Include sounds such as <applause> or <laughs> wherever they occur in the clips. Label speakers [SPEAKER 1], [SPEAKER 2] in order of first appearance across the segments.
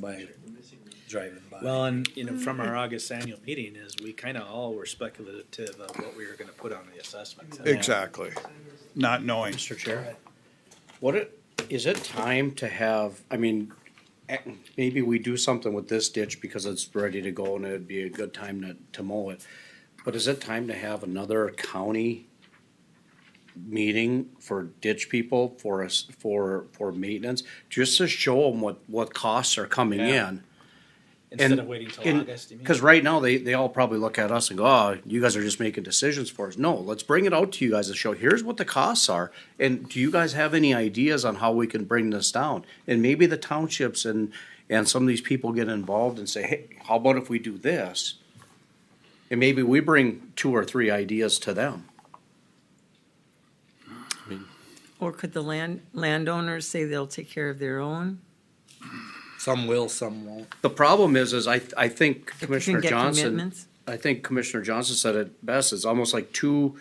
[SPEAKER 1] by driving by.
[SPEAKER 2] Well, and, you know, from our August annual meeting is we kind of all were speculative of what we were gonna put on the assessment.
[SPEAKER 3] Exactly, not knowing.
[SPEAKER 4] Mr. Chair, what it, is it time to have, I mean, eh, maybe we do something with this ditch because it's ready to go and it'd be a good time to, to mow it. But is it time to have another county meeting for ditch people for us, for, for maintenance? Just to show them what, what costs are coming
[SPEAKER 2] Yeah.
[SPEAKER 4] in.
[SPEAKER 2] Instead of waiting till August, you mean?
[SPEAKER 4] Because right now, they, they all probably look at us and go, oh, you guys are just making decisions for us. No, let's bring it out to you guys to show, here's what the costs are. And do you guys have any ideas on how we can bring this down? And maybe the townships and, and some of these people get involved and say, hey, how about if we do this? And maybe we bring two or three ideas to them.
[SPEAKER 5] Or could the land, landowners say they'll take care of their own?
[SPEAKER 1] some will, some won't.
[SPEAKER 4] The problem is, is I, I think
[SPEAKER 5] If we
[SPEAKER 4] Commissioner
[SPEAKER 5] can get
[SPEAKER 4] Johnson,
[SPEAKER 5] commitments?
[SPEAKER 4] I think Commissioner Johnson said it best, it's almost like two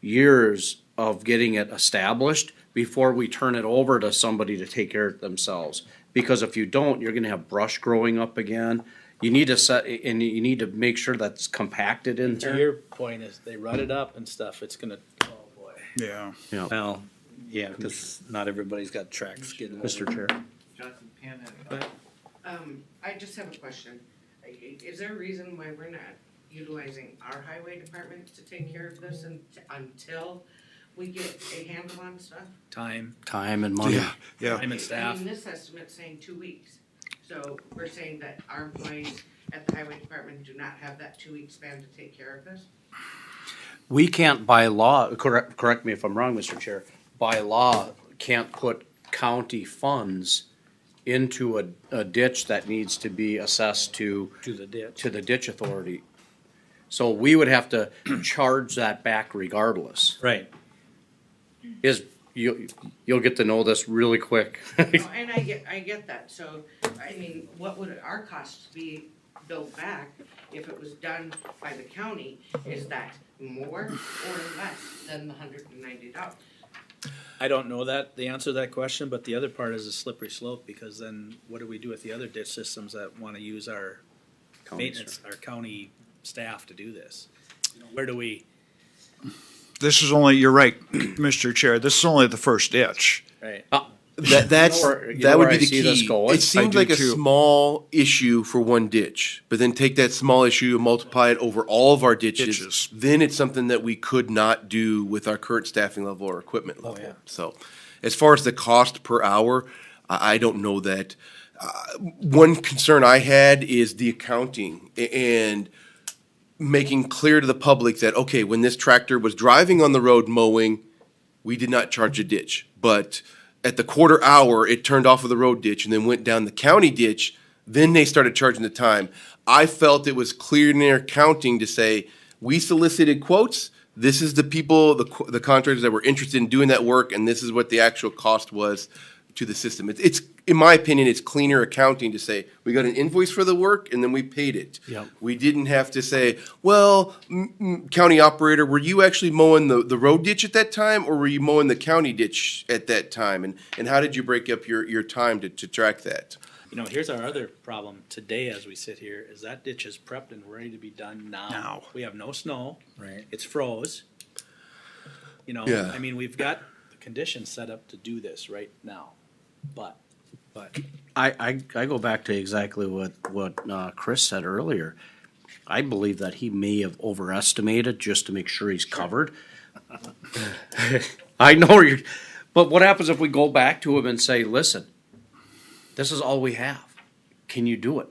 [SPEAKER 4] years of getting it established before we turn it over to somebody to take care of it themselves. Because if you don't, you're gonna have brush growing up again. You need to set, and you need to make sure that's compacted in
[SPEAKER 2] To
[SPEAKER 4] there.
[SPEAKER 2] your point is they rut it up and stuff, it's gonna, oh boy.
[SPEAKER 3] Yeah,
[SPEAKER 1] Well, yeah, because not everybody's got tracks getting.
[SPEAKER 4] Mr. Chair,
[SPEAKER 6] Johnson Pan had a
[SPEAKER 7] Um, I just have a question. I- i- Is there a reason why we're not utilizing our highway department to take care of this un- until we get a handle on stuff?
[SPEAKER 2] Time,
[SPEAKER 4] time and money.
[SPEAKER 3] Yeah. yeah,
[SPEAKER 2] time and
[SPEAKER 7] I
[SPEAKER 2] staff.
[SPEAKER 7] mean, this estimate's saying two weeks. So we're saying that our employees at the highway department do not have that two-week span to take care of this?
[SPEAKER 4] We can't by law, correct, correct me if I'm wrong, Mr. Chair, by law, can't put county funds into a, a ditch that needs to be assessed to,
[SPEAKER 2] To the ditch.
[SPEAKER 4] to the ditch authority. So we would have to <clears throat> charge that back regardless.
[SPEAKER 2] Right.
[SPEAKER 4] Is, you, you'll get to know this really quick. <laughs>
[SPEAKER 7] No, And I get, I get that, so, I mean, what would our costs be built back if it was done by the county? Is that more or less than the hundred and ninety dollars?
[SPEAKER 2] I don't know that, the answer to that question, but the other part is a slippery slope because then what do we do with the other ditch systems that wanna use our maintenance, our county staff to do this? You know, Where do we,
[SPEAKER 3] this is only, you're right, <clears throat> Mr. Chair, this is only the first ditch.
[SPEAKER 2] right?
[SPEAKER 8] That that's
[SPEAKER 4] know where- you know
[SPEAKER 8] that
[SPEAKER 4] where
[SPEAKER 8] would be
[SPEAKER 4] I
[SPEAKER 8] the
[SPEAKER 4] see this
[SPEAKER 8] key.
[SPEAKER 4] going?
[SPEAKER 8] It
[SPEAKER 3] I
[SPEAKER 8] seemed
[SPEAKER 3] do
[SPEAKER 8] like a
[SPEAKER 3] too.
[SPEAKER 8] small issue for one ditch, but then take that small issue and multiply it over all of our ditches.
[SPEAKER 3] Ditches.
[SPEAKER 8] Then it's something that we could not do with our current staffing level or equipment
[SPEAKER 3] Oh,
[SPEAKER 8] level.
[SPEAKER 4] yeah.
[SPEAKER 8] So, as far as the cost per hour, I, I don't know that. Uh, one concern I had is the accounting a- and making clear to the public that okay, when this tractor was driving on the road mowing, we did not charge a ditch, but at the quarter hour, it turned off of the road ditch and then went down the county ditch. Then they started charging the time. I felt it was clear in their accounting to say, we solicited quotes. This is the people, the, qu- the contractors that were interested in doing that work, and this is what the actual cost was to the system. It's, it's, in my opinion, it's cleaner accounting to say, we got an invoice for the work and then we paid it.
[SPEAKER 4] Yep.
[SPEAKER 8] We didn't have to say, well, m- m- county operator, were you actually mowing the, the road ditch at that time or were you mowing the county ditch at that time? And, and how did you break up your, your time to, to track that?
[SPEAKER 2] You know, here's our other problem today as we sit here, is that ditch is prepped and ready to be done now.
[SPEAKER 3] Now.
[SPEAKER 2] We have no snow.
[SPEAKER 1] Right.
[SPEAKER 2] It's froze. You know,
[SPEAKER 8] Yeah.
[SPEAKER 2] I mean, we've got the conditions set up to do this right now, but, but
[SPEAKER 4] I, I, I go back to exactly what, what, uh, Chris said earlier. I believe that he may have overestimated just to make sure he's covered. <laughs> I know you, but what happens if we go back to him and say, listen, this is all we have. Can you do it?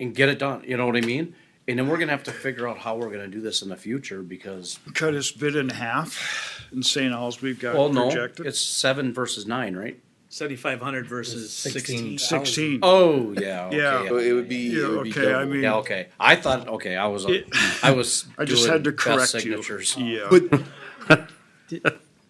[SPEAKER 4] And get it done, you know what I mean? And then we're gonna have to figure out how we're gonna do this in the future because,
[SPEAKER 3] Cut his bid in half in St. Alls, we've got
[SPEAKER 4] well, no,
[SPEAKER 3] projected.
[SPEAKER 4] it's seven versus nine, right?
[SPEAKER 2] seventy-five hundred versus sixteen.
[SPEAKER 1] Sixteen.
[SPEAKER 3] Sixteen.
[SPEAKER 4] Oh, yeah,
[SPEAKER 3] Yeah.
[SPEAKER 8] So
[SPEAKER 4] okay.
[SPEAKER 8] it would be,
[SPEAKER 3] Yeah,
[SPEAKER 8] it would be
[SPEAKER 3] okay, I
[SPEAKER 8] double.
[SPEAKER 3] mean-
[SPEAKER 4] Yeah, okay. I thought, okay, I was, uh,
[SPEAKER 3] It-
[SPEAKER 4] I was.
[SPEAKER 3] I just
[SPEAKER 4] doing
[SPEAKER 3] had to
[SPEAKER 4] best
[SPEAKER 3] correct you.
[SPEAKER 4] signatures.
[SPEAKER 3] Yeah.
[SPEAKER 8] But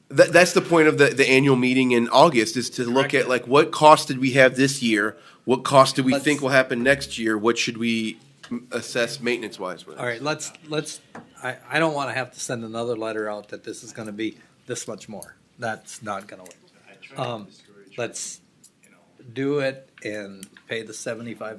[SPEAKER 8] that, that's the point of the, the annual meeting in August is to look at like, what cost did we have this year? What cost do we
[SPEAKER 1] Let's-
[SPEAKER 8] think will happen next year? What should we mm, assess maintenance wise with?
[SPEAKER 1] All right, let's, let's, I, I don't want to have to send another letter out that this is going to be this much more. That's not going to work. Um, let's do it and pay the seventy-five